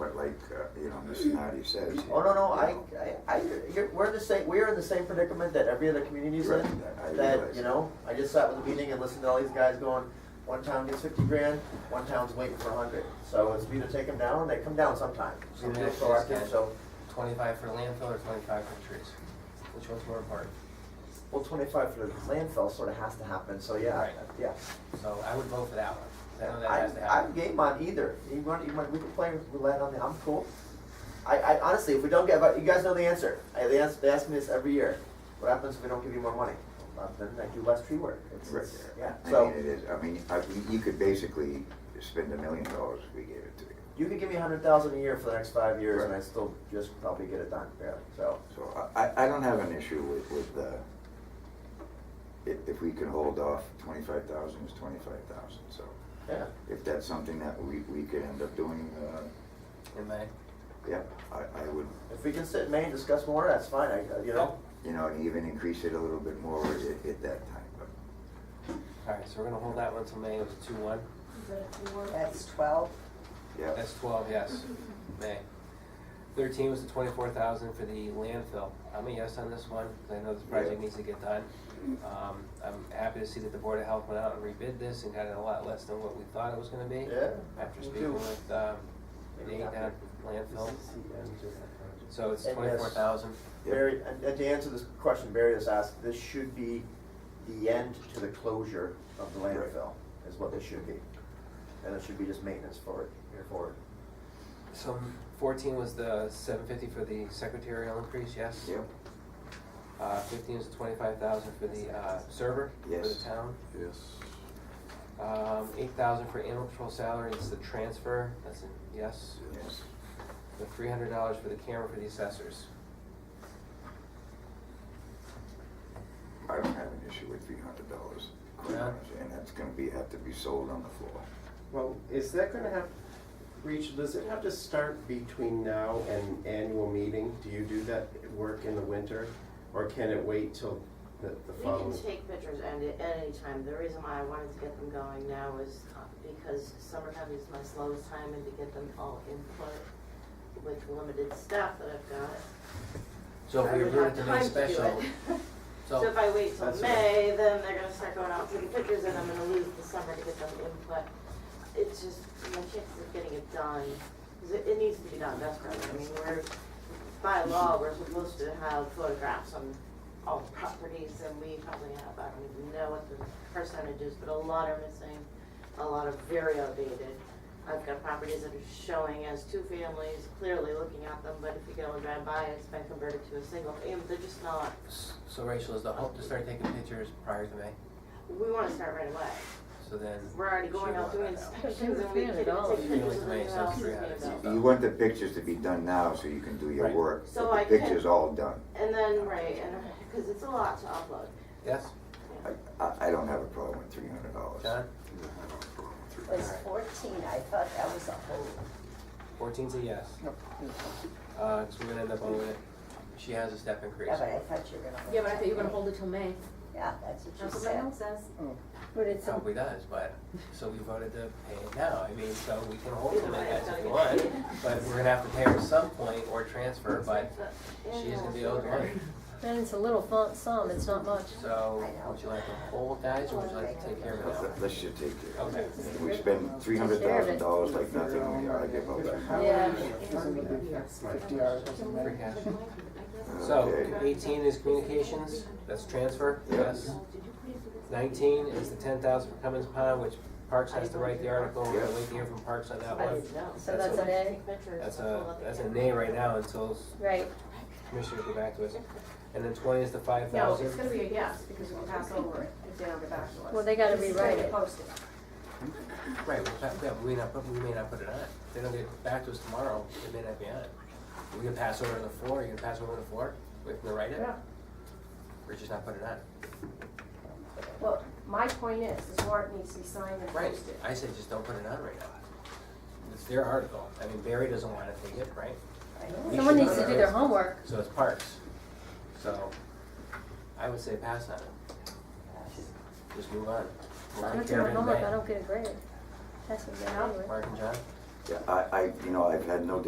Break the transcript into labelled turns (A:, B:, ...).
A: uh, Mr. Nardi says.
B: Oh, no, no, I, I, I, you're, we're in the same, we're in the same predicament that every other community's in.
A: Right, I
B: That,
A: realize.
B: you know, I just sat with a meeting and listened to all these guys going, one town gets fifty grand, one town's waiting for a hundred. So it's either take them down, they come down sometime. It's either
C: Yeah,
B: just proactive,
C: that's
B: so,
C: Twenty-five for landfill or twenty-five for trees? Which one's more important?
B: well, twenty-five for the landfill sort of has to happen, so yeah,
C: Right.
B: yeah.
C: So I would vote for that one. 'cause I know that
B: I,
C: has to
B: I'm
C: happen.
B: game on either. You want, you want, we can play roulette on the, I'm cool. I, I honestly, if we don't get, but you guys know the answer. I, they ask, they ask me this every year. What happens if we don't give you more money? Uh, Then I do less tree work. It's,
A: Right.
B: it's, yeah.
A: I
B: So
A: mean, it is, I mean, I- you- you could basically spend a million dollars if we gave it to you.
B: you could give me a hundred thousand a year for the next five years and I
A: Right.
B: still just probably get it done, barely, so.
A: So I, I I don't have an issue with, with, uh, if, if we could hold off, twenty-five thousand is twenty-five thousand, so.
B: Yeah.
A: If that's something that we, we could end up doing, uh,
C: In May.
A: yeah, I, I would,
B: If we can sit in May and discuss more, that's fine, I, uh, you know.
A: you know, and even increase it a little bit more at, at that time, but.
C: Alright, so we're gonna hold that one till May, it was two-one.
D: That's twelve.
A: Yeah,
C: That's twelve, yes, May. Thirteen was the twenty-four thousand for the landfill. I'm a yes on this one, because I know this project
A: Yeah.
C: needs to get done. Um, I'm happy to see that the Board of Health went out and rebid this and got it a lot less than what we thought it was gonna be.
B: Yeah.
C: After
B: Me
C: speaking
B: too.
C: with, um, Nate down at landfill. So it's
B: And yes.
C: twenty-four thousand.
B: Barry, and and to answer this question Barry has asked, this should be the end to the closure of the
A: Right.
B: landfill, is what this should be. And it should be just maintenance for it, here for it.
C: So fourteen was the seven fifty for the secretarial increase, yes?
A: yeah,
C: Uh, fifteen is twenty-five thousand for the, uh, server for the
A: Yes.
C: town.
E: Yes.
C: Um, eight thousand for animal control salary, it's the transfer, that's a yes.
A: yes,
C: The three hundred dollars for the camera for the assessors.
A: I don't have an issue with three hundred dollars. And that's gonna be, have to be sold on the floor.
F: Well, is that gonna have, Rach, does it have to start between now and annual meeting? Do you do that work in the winter, or can it wait till the, the
G: We can
F: following?
G: take pictures and at any time. The reason why I wanted to get them going now is uh, because summertime is my slowest time and to get them all input with limited staff that I've got.
C: So if we
G: I would
C: approve it
G: have
C: to
G: time
C: make
G: to do
C: special,
G: it. So if
C: so,
G: I wait till
F: That's right.
G: May, then they're gonna start going out taking pictures and I'm gonna lose the summer to get them input. It's just, my chances of getting it done, 'cause it, it needs to be done desperately. I mean, we're, by law, we're supposed to have photographs on all the properties and we probably have, I don't even know what the percentage is, but a lot are missing. A lot are very outdated. I've got properties that are showing as two families, clearly looking at them, but if you go and drive by, it's been converted to a single, fam- they're just not
C: so Rachel, is the hope to start taking pictures prior to May?
G: we wanna start right away.
C: So then.
G: We're already
C: she'll
G: going out
C: want that
G: doing
C: now.
G: inspections and we can take pictures
C: Really,
G: and
C: tomato
G: everything
C: sauce,
G: else.
C: three
G: is
C: hundred.
G: gonna go.
A: You want the pictures to be done now so you can do your
C: Right.
A: work,
G: So I
A: but the
G: can-
A: picture's all done.
G: And then, right, and, cause it's a lot to upload.
C: Yes,
A: I, I, I don't have a problem with three hundred dollars.
C: John?
D: It was
C: Alright.
D: fourteen. I thought that was a whole.
C: Fourteen's a yes. Uh, so we're gonna end up owing it. She has a step increase.
D: Yeah, but I thought you were gonna. hold
H: Yeah, but I thought you were gonna
D: it.
H: hold it till May.
D: Yeah, that's what you
H: That's what
D: said.
H: my note says.
C: Oh.
D: But it's, a-
C: Probably does, but, so we voted to pay it now, I mean, so we can hold
G: Either
C: them
G: way,
C: I guess
G: it's
C: if we
G: gotta
C: want,
G: get-
C: but we're gonna have to pay her some point or transfer, but she is gonna be owed money.
H: Then it's a little font sum, it's not much.
C: So, would you like to hold guys, or would you like to take care of
A: Let's-
C: it
A: let- Let's just take care of
C: Okay.
A: it. If We spend three hundred thousand dollars like nothing, we ought to give up.
H: Yeah.
E: Fifty
C: now? Free cash.
A: Okay.
C: So, eighteen is communications, that's transfer,
A: Yeah.
C: yes. Nineteen is the ten thousand for Cummins Pond, which Parks has to write the article, we're gonna wait to hear from Parks on that
G: I
C: one.
G: didn't know.
D: So that's an A?
G: Take pictures
C: That's
G: and
C: a,
G: upload it
C: that's a
G: again.
C: nay right now until
H: Right.
C: commissioners get back to us. And then twenty is the five
I: No,
C: thousand.
I: it's gonna be a yes, because we'll pass over it if they don't get back to us.
H: Well, they gotta
I: This is
H: rewrite
I: gonna
H: it.
I: post it.
C: Right, well, that, that, we may not, put- we may not put it on. If They don't get back to us tomorrow, it may not be on. We can pass over on the floor, you can pass over on the floor, we can write it,
I: Yeah.
C: or just not put it on.
I: Well, my point is, this warrant needs to be signed and
C: Right,
I: posted.
C: I said just don't put it on right now. It's their article, I mean Barry doesn't wanna take it, right? We
H: Someone
C: should
H: needs to
C: not.
H: do their homework.
C: So it's parks. So, I would say pass on it. Just move on. We'll
H: I
C: take
H: don't do
C: care of
H: my
C: it in
H: homework,
C: May.
H: I don't get a grade. That's what I'm doing.
C: Mark and John?
A: Yeah, I, I, you know, I've had no